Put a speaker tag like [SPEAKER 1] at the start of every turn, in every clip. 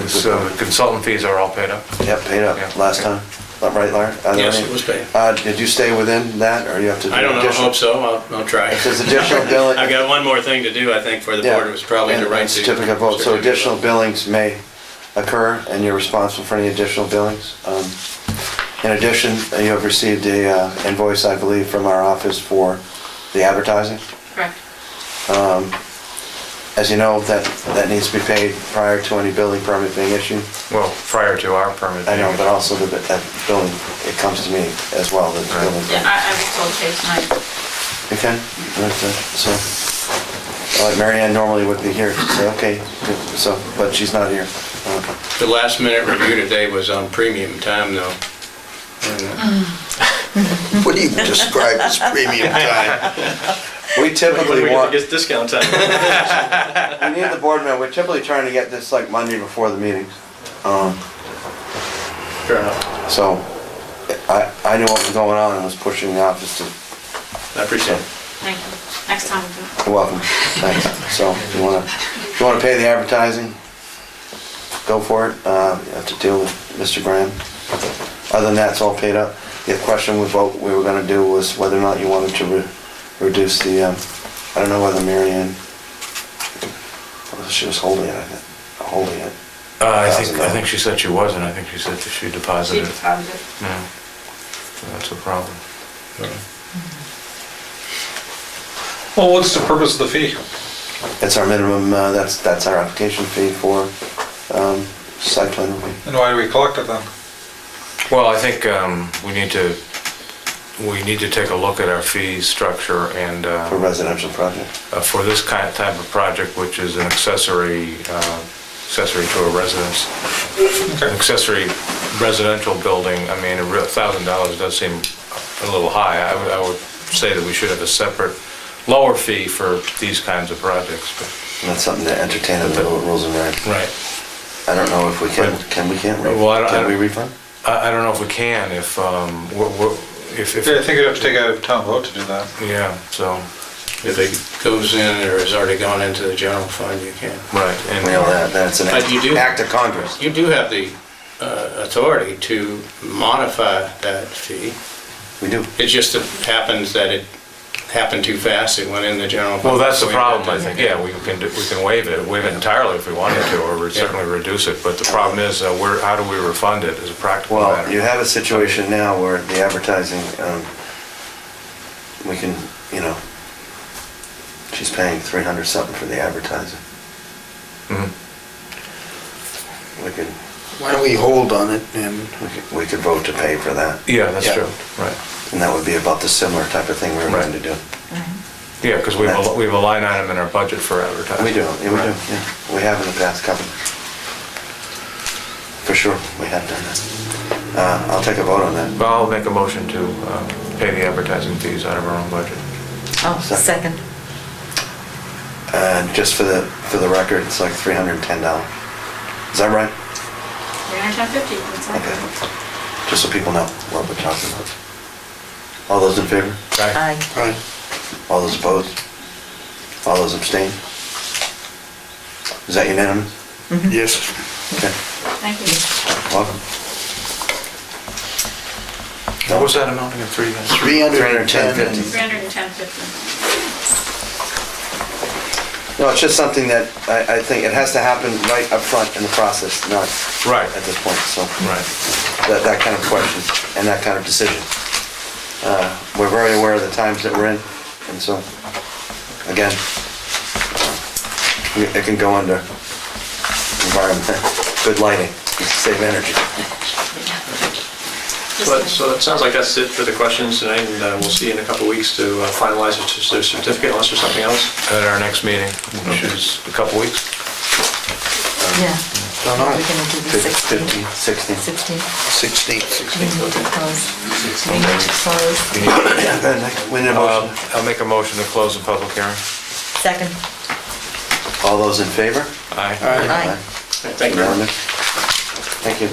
[SPEAKER 1] So the uh, consultant fees are all paid up.
[SPEAKER 2] Yeah, paid up
[SPEAKER 1] Yeah.
[SPEAKER 2] last time, Not right, Larry? Are there
[SPEAKER 3] Yes,
[SPEAKER 2] any-
[SPEAKER 3] it was paid.
[SPEAKER 2] Uh, did you stay within that, or you have to do
[SPEAKER 3] I don't know, I
[SPEAKER 2] additional?
[SPEAKER 3] hope so, I'll, I'll try.
[SPEAKER 2] There's additional billing.
[SPEAKER 3] I've got one more thing to do, I think, for the
[SPEAKER 2] Yeah,
[SPEAKER 3] board, it was probably
[SPEAKER 2] and-
[SPEAKER 3] to write.
[SPEAKER 2] and
[SPEAKER 3] the
[SPEAKER 2] Certificate of vote, so
[SPEAKER 3] certificate of
[SPEAKER 2] additional
[SPEAKER 3] vote.
[SPEAKER 2] billings may occur, and you're responsible for any additional billings. Um, In addition, you have received a uh, invoice, I believe, from our office for the advertising.
[SPEAKER 4] Correct.
[SPEAKER 2] As you know, that, that needs to be paid prior to any building permit being issued.
[SPEAKER 1] Well, prior to our permit.
[SPEAKER 2] I know,
[SPEAKER 1] being-
[SPEAKER 2] but also the, that building, it comes to me as well, the
[SPEAKER 1] Right.
[SPEAKER 2] building.
[SPEAKER 4] Yeah, I, I was told Chase and I,
[SPEAKER 2] You can, I'd like to, so, all right, Mary Ann normally would be here, so, okay, good, so, but she's not here. Uh,
[SPEAKER 3] The last minute review today was on premium time, though.
[SPEAKER 5] What do you describe as premium time?
[SPEAKER 2] We typically want, we
[SPEAKER 6] discount time.
[SPEAKER 2] need the board member, we're typically trying to get this like Monday before the meetings. Um,
[SPEAKER 3] Fair enough,
[SPEAKER 2] So, I, I knew what was going on and was pushing the office to,
[SPEAKER 3] I appreciate it.
[SPEAKER 4] thank you. Next time we'll do it.
[SPEAKER 2] you're welcome, thanks. So, you wanna, you wanna pay the advertising? Go for it, uh, you have to deal with Mr. Graham. Other than that, it's all paid up. The question we vote, we were gonna do was whether or not you wanted to re- reduce the, um, I don't know whether Mary Ann, she was holding it, I think, holding it.
[SPEAKER 1] Uh, I think, I think she said she wasn't, I think she said that she
[SPEAKER 4] She
[SPEAKER 1] deposited. it.
[SPEAKER 4] deposited.
[SPEAKER 1] Yeah. That's a problem.
[SPEAKER 6] Well, what's the purpose of the fee?
[SPEAKER 2] That's our minimum, uh, that's, that's our application fee for um, site plan review.
[SPEAKER 6] And why do we collect it then?
[SPEAKER 1] Well, I think um, we need to, we need to take a look at our fee structure and uh,
[SPEAKER 2] for residential project.
[SPEAKER 1] uh, for this kind of type of project, which is an accessory, uh, accessory to a residence, an
[SPEAKER 6] Okay.
[SPEAKER 1] accessory residential building, I mean, a real thousand dollars does seem a little high. I would, I would say that we should have a separate lower fee for these kinds of projects. but-
[SPEAKER 2] And That's something to entertain in the rules and regs.
[SPEAKER 1] Right.
[SPEAKER 2] I don't know if we can, can we, can't we?
[SPEAKER 1] Well, I don't- I
[SPEAKER 2] Can we
[SPEAKER 1] don't-
[SPEAKER 2] refund?
[SPEAKER 1] I, I don't know if we can, if, um, we're- we're- if,
[SPEAKER 6] Yeah, I
[SPEAKER 1] if,
[SPEAKER 6] think you'd have to take a town vote to do that.
[SPEAKER 1] yeah, so,
[SPEAKER 3] If it goes in or has already gone into the general fund, you can.
[SPEAKER 1] right. and- uh,
[SPEAKER 2] Mail that, that's an
[SPEAKER 3] But you
[SPEAKER 2] act
[SPEAKER 3] do-
[SPEAKER 2] act of Congress.
[SPEAKER 3] You do have the uh, authority to modify that fee.
[SPEAKER 2] We do.
[SPEAKER 3] It just happens that it happened too fast, it went in the general fund.
[SPEAKER 1] Well, that's the
[SPEAKER 3] So we had
[SPEAKER 1] problem, I
[SPEAKER 3] to-
[SPEAKER 1] think, yeah, we can, do- we can waive it, waive it entirely if we wanted to, or we'd certainly reduce it, but the problem is, uh, where, how do we refund it as a practical
[SPEAKER 2] Well, you
[SPEAKER 1] matter?
[SPEAKER 2] have a situation now where the advertising, um, we can, you know, she's paying 300 something for the advertising.
[SPEAKER 1] Mhm.
[SPEAKER 2] We could,
[SPEAKER 5] Why don't we hold on it and
[SPEAKER 2] we could, we could vote to pay for that.
[SPEAKER 1] Yeah, that's
[SPEAKER 5] Yeah.
[SPEAKER 1] true, right,
[SPEAKER 2] And that would be about the similar type of thing we were going to
[SPEAKER 1] Right.
[SPEAKER 2] do.
[SPEAKER 1] yeah, because we have, a- we have a line item in our budget for advertising.
[SPEAKER 2] We do, yeah, we do,
[SPEAKER 1] Right.
[SPEAKER 2] yeah. We have in the past couple. For sure, we have done that. Uh, I'll take a vote on that.
[SPEAKER 1] Well, I'll make a motion to, uh, pay the advertising fees out of our own budget.
[SPEAKER 7] Oh,
[SPEAKER 2] Second.
[SPEAKER 7] second.
[SPEAKER 2] And Uh, just for the, for the record, it's like three hundred and ten dollars. Is that right?
[SPEAKER 4] Three hundred and fifty, that's all.
[SPEAKER 2] Okay. Just so people know what we're talking about. All those in favor?
[SPEAKER 1] Right?
[SPEAKER 7] Aye.
[SPEAKER 5] Right.
[SPEAKER 2] All those opposed? All those abstain? Is that unanimous?
[SPEAKER 5] Yes.
[SPEAKER 2] Okay,
[SPEAKER 4] Thank you.
[SPEAKER 2] welcome.
[SPEAKER 1] What was that amount again, three hundred?
[SPEAKER 5] Three hundred and ten.
[SPEAKER 4] Three hundred and ten fifty.
[SPEAKER 2] No, it's just something that I, I think it has to happen right up front in the process, not
[SPEAKER 1] Right.
[SPEAKER 2] at this point, so.
[SPEAKER 1] Right,
[SPEAKER 2] That, that kind of question and that kind of decision. Uh, We're very aware of the times that we're in, and so, again, we- it can go under environment, good lighting, save energy.
[SPEAKER 6] But, so it sounds like that's it for the questions tonight, and uh, we'll see you in a couple of weeks to uh, finalize the cer- the certificate unless there's something else.
[SPEAKER 1] at our next meeting, which is a couple weeks,
[SPEAKER 7] Yeah.
[SPEAKER 2] Don't know.
[SPEAKER 7] We're gonna do the 16.
[SPEAKER 2] 15, 16.
[SPEAKER 7] 16.
[SPEAKER 5] Sixteenth.
[SPEAKER 7] We need to close. We need to close.
[SPEAKER 2] Yeah, go ahead, Nick. We need a
[SPEAKER 1] Uh,
[SPEAKER 2] motion.
[SPEAKER 1] I'll make a motion to close the public hearing.
[SPEAKER 7] Second.
[SPEAKER 2] All those in favor?
[SPEAKER 1] Aye.
[SPEAKER 7] Aye.
[SPEAKER 3] Thank you.
[SPEAKER 2] Unanimous? Thank you.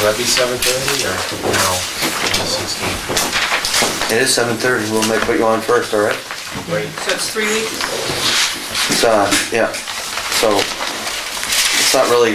[SPEAKER 8] Will that be seven thirty or no? Sixteen.
[SPEAKER 2] It is 7:30, we'll make, put you on first, all right?
[SPEAKER 4] So it's three weeks?
[SPEAKER 2] It's, uh, yeah, so, it's not really